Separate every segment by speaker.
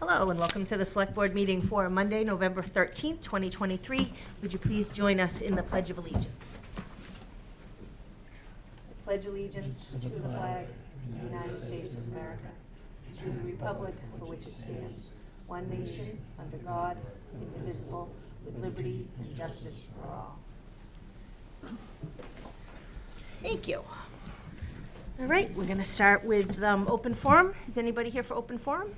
Speaker 1: Hello, and welcome to the Select Board meeting for Monday, November 13th, 2023. Would you please join us in the Pledge of Allegiance? Pledge allegiance to the flag of the United States of America, to the republic for which it stands, one nation, under God, indivisible, with liberty and justice for all. Thank you. All right, we're going to start with um, open forum. Is anybody here for open forum?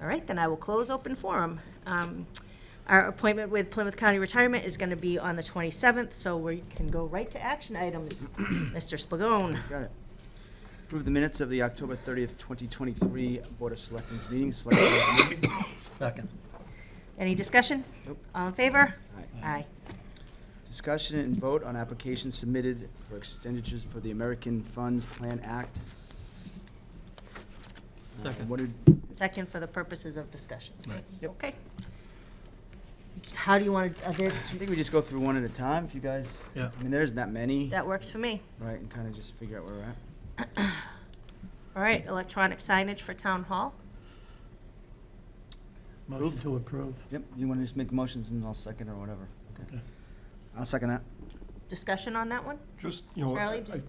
Speaker 1: All right, then I will close open forum. Um, Our appointment with Plymouth County Retirement is going to be on the 27th, so we can go right to action items. Mr. Spagone.
Speaker 2: Got it. Approve the minutes of the October 30th, 2023 Board of Selectmen's meeting. Select Board meeting.
Speaker 3: Second.
Speaker 1: Any discussion?
Speaker 2: Nope.
Speaker 1: All in favor?
Speaker 2: Aye.
Speaker 1: Aye.
Speaker 2: Discussion and vote on applications submitted for expenditures for the American Funds Plan Act. Uh,
Speaker 3: Second.
Speaker 2: What did,
Speaker 1: Second for the purposes of discussion.
Speaker 3: Right.
Speaker 2: Yep.
Speaker 1: Okay. How do you want to, uh,
Speaker 2: I think we just go through one at a time, if you guys.
Speaker 3: Yeah.
Speaker 2: I mean, there's that many,
Speaker 1: that works for me.
Speaker 2: right, and kind of just figure out where we're at.
Speaker 1: All right, electronic signage for Town Hall.
Speaker 3: Motion to approve.
Speaker 2: Yep, you want to just make motions and I'll second or whatever. Okay.
Speaker 3: Okay.
Speaker 2: I'll second that.
Speaker 1: Discussion on that one?
Speaker 4: Just, you know,
Speaker 1: Charlie,
Speaker 4: I,
Speaker 1: did-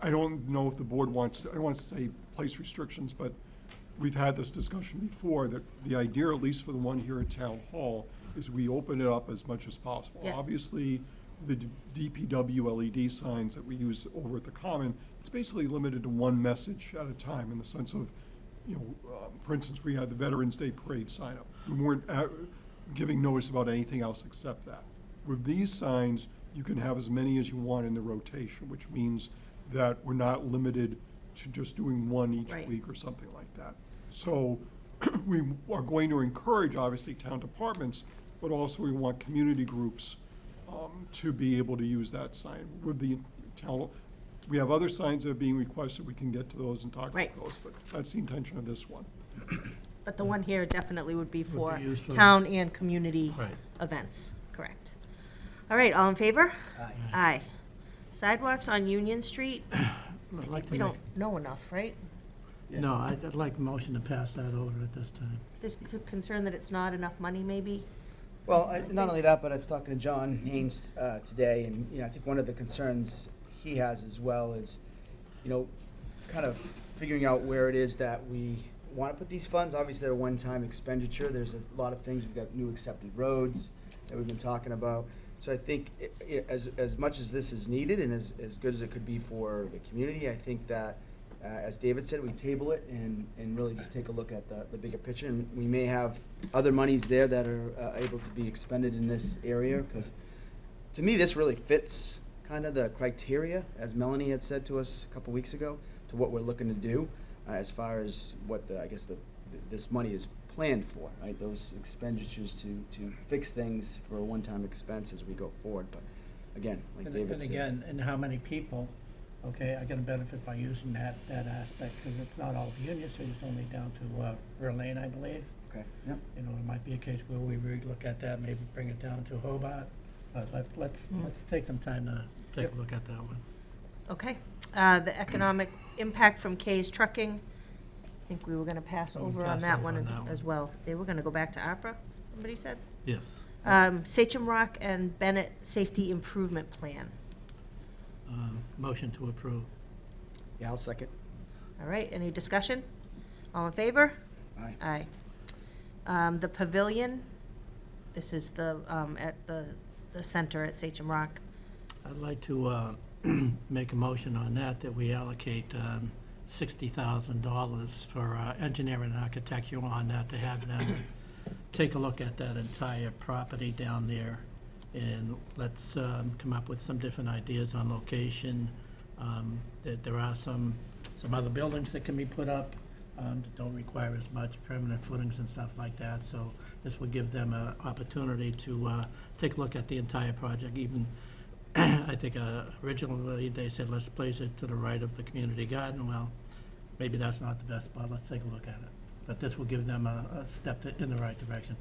Speaker 4: I don't know if the board wants, I don't want to say place restrictions, but we've had this discussion before, that the idea, at least for the one here at Town Hall, is we open it up as much as possible.
Speaker 1: Yes.
Speaker 4: Obviously, the d- DPW LED E signs that we use over at the Common, it's basically limited to one message at a time in the sense of, you know, um, for instance, we had the Veterans Day Parade sign up. We weren't uh, giving notice about anything else except that. With these signs, you can have as many as you want in the rotation, which means that we're not limited to just doing one each
Speaker 1: Right.
Speaker 4: week or something like that. So we are going to encourage, obviously, town departments, but also we want community groups um, to be able to use that sign with the town. We have other signs that are being requested, we can get to those and talk about
Speaker 1: Right.
Speaker 4: those, but that's the intention of this one.
Speaker 1: But the one here definitely would be for
Speaker 3: used for-
Speaker 1: town and community
Speaker 3: Right.
Speaker 1: events, correct. All right, all in favor? Aye. Aye. Sidewalks on Union Street,
Speaker 3: I'd like to
Speaker 1: we
Speaker 3: make,
Speaker 1: don't know enough, right?
Speaker 3: no, I'd I'd like motion to pass that over at this time.
Speaker 1: There's c- concern that it's not enough money, maybe?
Speaker 2: Well, I- not only that, but I was talking to John Haynes uh, today, and, you know, I think one of the concerns he has as well is, you know, kind of figuring out where it is that we want to put these funds. Obviously, they're a one-time expenditure. There's a lot of things. We've got new accepted roads that we've been talking about. So I think i- i- as, as much as this is needed and as, as good as it could be for the community, I think that, uh, as David said, we table it and, and really just take a look at the, the bigger picture. And we may have other monies there that are uh, able to be expended in this area, because to me, this really fits kind of the criteria, as Melanie had said to us a couple weeks ago, to what we're looking to do, uh, as far as what the, I guess the, this money is planned for, right? Those expenditures to, to fix things for a one-time expense as we go forward, but again, like
Speaker 3: And
Speaker 2: David
Speaker 3: and
Speaker 2: said.
Speaker 3: again, and how many people, okay, are gonna benefit by using that, that aspect, because it's not all of Union Street, it's only down to uh, Verlaine, I believe.
Speaker 2: Okay, yep,
Speaker 3: You know, it might be a case where we really look at that, maybe bring it down to Hobart, but let, let's,
Speaker 1: Mm.
Speaker 3: let's take some time to take a look at that one.
Speaker 1: Okay. Uh, The economic impact from Kay's Trucking, I think we were going to pass
Speaker 3: Oh, we
Speaker 1: over on
Speaker 3: passed
Speaker 1: that
Speaker 3: over
Speaker 1: one
Speaker 3: on
Speaker 1: and-
Speaker 3: that one.
Speaker 1: as well. They were going to go back to ARPA, somebody said?
Speaker 3: Yes.
Speaker 1: Um, Sachem Rock and Bennett Safety Improvement Plan.
Speaker 3: Uh, Motion to approve.
Speaker 2: yeah, I'll second.
Speaker 1: All right, any discussion? All in favor?
Speaker 2: Aye.
Speaker 1: Aye. Um, the pavilion, this is the, um, at the, the center at Sachem Rock.
Speaker 3: I'd like to uh, make a motion on that, that we allocate um, $60,000 for uh, engineering and architecture on that, to have them take a look at that entire property down there, and let's um, come up with some different ideas on location. Um, That There are some, some other buildings that can be put up um, that don't require as much permanent footings and stuff like that, so this will give them an opportunity to uh, take a look at the entire project, even I think uh, originally they said, let's place it to the right of the community garden. Well, maybe that's not the best spot. Let's take a look at it. But this will give them a, a step to- in the right direction.